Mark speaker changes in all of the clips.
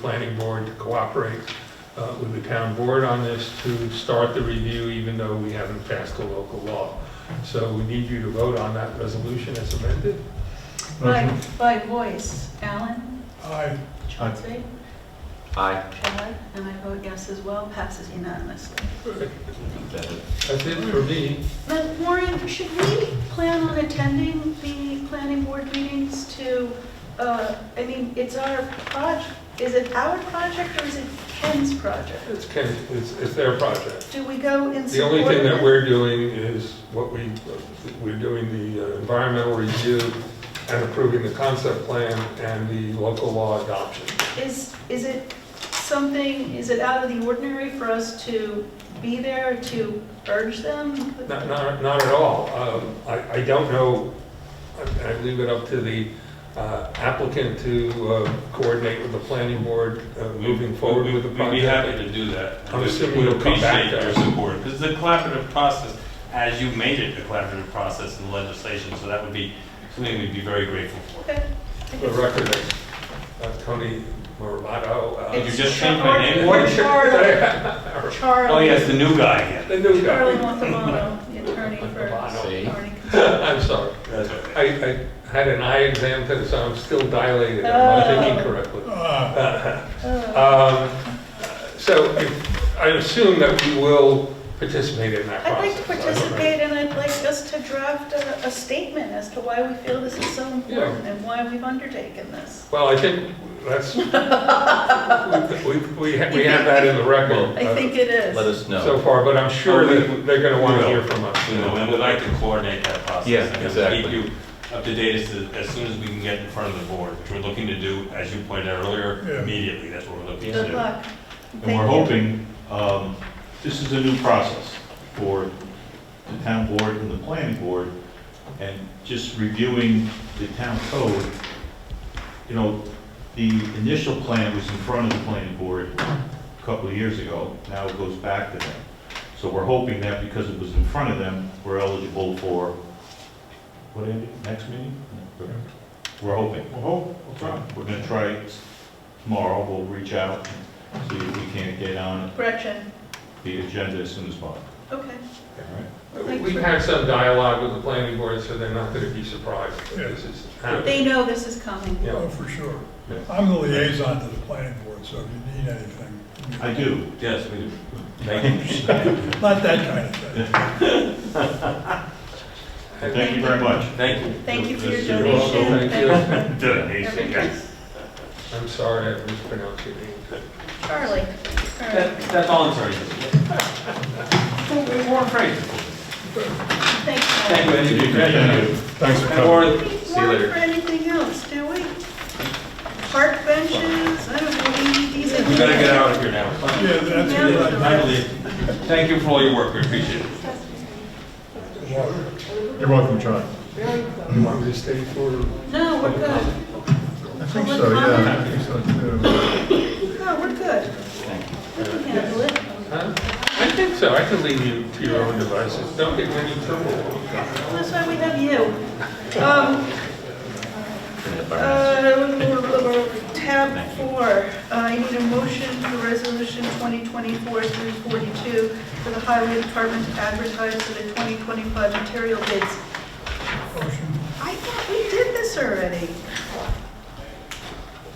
Speaker 1: planning board to cooperate uh, with the town board on this to start the review, even though we haven't passed a local law. So we need you to vote on that resolution as amended.
Speaker 2: By, by voice, Alan,
Speaker 3: Aye.
Speaker 2: Chauncey,
Speaker 4: Aye.
Speaker 2: Chad, and I vote yes as well, passes unanimously.
Speaker 1: That's it for me.
Speaker 2: But Maureen, should we plan on attending the planning board meetings to, uh, I mean, it's our project, is it our project or is it Ken's project?
Speaker 1: It's Ken, it's, it's their project.
Speaker 2: Do we go in
Speaker 1: The
Speaker 2: support
Speaker 1: only thing
Speaker 2: of
Speaker 1: that
Speaker 2: it?
Speaker 1: we're doing is what we, we're doing the uh, environmental review and approving the concept plan and the local law adoption.
Speaker 2: Is, is it something, is it out of the ordinary for us to be there to urge them?
Speaker 1: Not, not, not at all. Um, I, I don't know, I I leave it up to the uh, applicant to uh, coordinate with the planning board uh, moving forward with the
Speaker 5: We'd be happy
Speaker 1: project.
Speaker 5: to do that.
Speaker 1: I'm
Speaker 5: We-
Speaker 1: assuming
Speaker 5: we
Speaker 1: you'll come back to
Speaker 5: Appreciate your
Speaker 1: us.
Speaker 5: support, because it's a collaborative process, as you made it a collaborative process in legislation, so that would be something we'd be very grateful for.
Speaker 2: Okay.
Speaker 1: For the record, uh, Tony Moravato. uh,
Speaker 5: Did you just change my name?
Speaker 1: What?
Speaker 2: Charlie.
Speaker 5: Oh, yes, the new guy again.
Speaker 1: The new
Speaker 2: Charlie
Speaker 1: guy.
Speaker 2: Montalbano, the attorney for
Speaker 4: See?
Speaker 2: Arnie.
Speaker 1: I'm sorry.
Speaker 5: That's okay.
Speaker 1: I, I had an eye exam today, so I'm still dilated. I'm not thinking
Speaker 2: Oh.
Speaker 1: correctly.
Speaker 3: Ah,
Speaker 2: Oh,
Speaker 1: Um, So if- I assume that we will participate in that
Speaker 2: I'd
Speaker 1: process.
Speaker 2: like
Speaker 1: I
Speaker 2: to
Speaker 1: don't know.
Speaker 2: participate, and I'd like us to draft a, a statement as to why we feel this is so important and why we've undertaken this.
Speaker 1: Well, I think that's, we, we we have we have that in the record
Speaker 2: I
Speaker 1: uh,
Speaker 2: think it is.
Speaker 4: Let us
Speaker 1: so
Speaker 4: know.
Speaker 1: far, but I'm sure that they're going to want to hear from us.
Speaker 5: You know, and we'd like to coordinate that process.
Speaker 4: Yeah,
Speaker 5: and
Speaker 4: exactly.
Speaker 5: Keep you up to date as, to- as soon as we can get in front of the board, which we're looking to do, as you pointed out earlier,
Speaker 3: Yeah.
Speaker 5: immediately, that's what we're looking to
Speaker 2: Good
Speaker 5: do.
Speaker 2: luck.
Speaker 6: And
Speaker 2: Thank
Speaker 6: we're
Speaker 2: you.
Speaker 6: hoping, um, this is a new process for the town board and the planning board, and just reviewing the town code, you know, the initial plan was in front of the planning board a couple of years ago, now it goes back to them. So we're hoping that because it was in front of them, we're eligible for, what, Andy, next meeting? We're hoping.
Speaker 3: well, hope, we'll try.
Speaker 6: We're gonna try it tomorrow, we'll reach out, and see if we can't get on
Speaker 2: Gretchen,
Speaker 6: the agenda as soon as possible.
Speaker 2: okay.
Speaker 6: All right.
Speaker 1: We've had some dialogue with the planning board, so they're not going to be surprised that this is happening.
Speaker 2: They know this is coming.
Speaker 1: Yeah.
Speaker 3: Oh, for sure.
Speaker 6: Yeah.
Speaker 3: I'm the liaison to the planning board, so if you need anything. you-
Speaker 6: I do.
Speaker 5: Yes, we do. Thank you.
Speaker 3: Not that kind of thing.
Speaker 6: Thank you very much.
Speaker 5: Thank you.
Speaker 2: Thank you for your
Speaker 6: Yes, you're
Speaker 2: donation.
Speaker 1: welcome. Thank
Speaker 2: you.
Speaker 6: Yes.
Speaker 2: Everything.
Speaker 1: I'm sorry I mispronounced your name.
Speaker 2: Charlie. All
Speaker 5: That-
Speaker 2: right.
Speaker 5: That's all I'm sorry. More praise. Thank
Speaker 2: Thank
Speaker 5: you,
Speaker 2: you.
Speaker 5: Andy.
Speaker 6: Thank you.
Speaker 3: Thanks for
Speaker 5: Or-
Speaker 2: We need warrant for anything else, do we? Park benches, I don't know, we need these.
Speaker 5: We better get out of here now.
Speaker 3: Yeah, that's what I-
Speaker 5: I believe. Thank you for all your work, we appreciate it.
Speaker 7: You're welcome, Charlie.
Speaker 1: You want me to stay for?
Speaker 2: No, we're good.
Speaker 7: I think so, yeah. I think so too.
Speaker 2: No, we're good. We can handle it.
Speaker 1: Huh? I think so. I can leave you to your own devices. Don't get in any trouble.
Speaker 2: That's why we have you. Um, uh, Tab four, uh, I need a motion for resolution 2024-342 for the highway department to advertise for the 2025 material bids.
Speaker 3: Motion,
Speaker 2: I thought we did this already.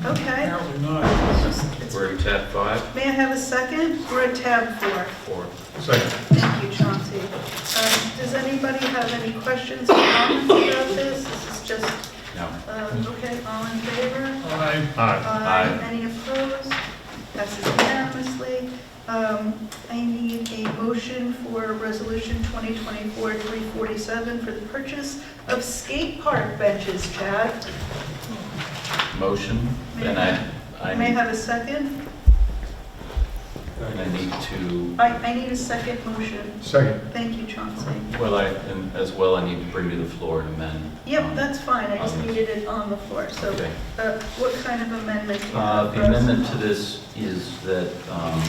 Speaker 2: Okay.
Speaker 3: apparently not.
Speaker 2: it's just- it's-
Speaker 4: We're at tab five,
Speaker 2: May I have a second? We're at tab four.
Speaker 4: four.
Speaker 7: Second.
Speaker 2: Thank you, Chauncey. Um, Does anybody have any questions or comments about this? This is just,
Speaker 4: No.
Speaker 2: um, okay, all in favor?
Speaker 3: Aye.
Speaker 7: Aye.
Speaker 2: Aye. Any opposed? Passes unanimously. Um, I need a motion for Resolution 2024-347 for the purchase of skate park benches, Chad.
Speaker 4: Motion, and I, I
Speaker 2: May I
Speaker 4: need,
Speaker 2: have a second?
Speaker 4: and I need to,
Speaker 2: I I need a second motion.
Speaker 7: Second.
Speaker 2: Thank you, Chauncey.
Speaker 4: well, I, and as well, I need to bring to the floor an amendment.
Speaker 2: Yep, that's fine, I just
Speaker 4: Um,
Speaker 2: needed it on the floor, so
Speaker 4: Okay.
Speaker 2: Uh, What kind of amendment do you
Speaker 4: Uh,
Speaker 2: have?
Speaker 4: The amendment to this is that um,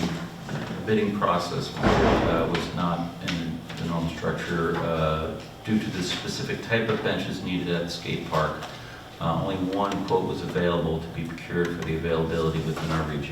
Speaker 4: the bidding process uh, was not in the normal structure uh, due to the specific type of benches needed at the skate park. Uh, Only one quote was available to be procured for the availability within our region.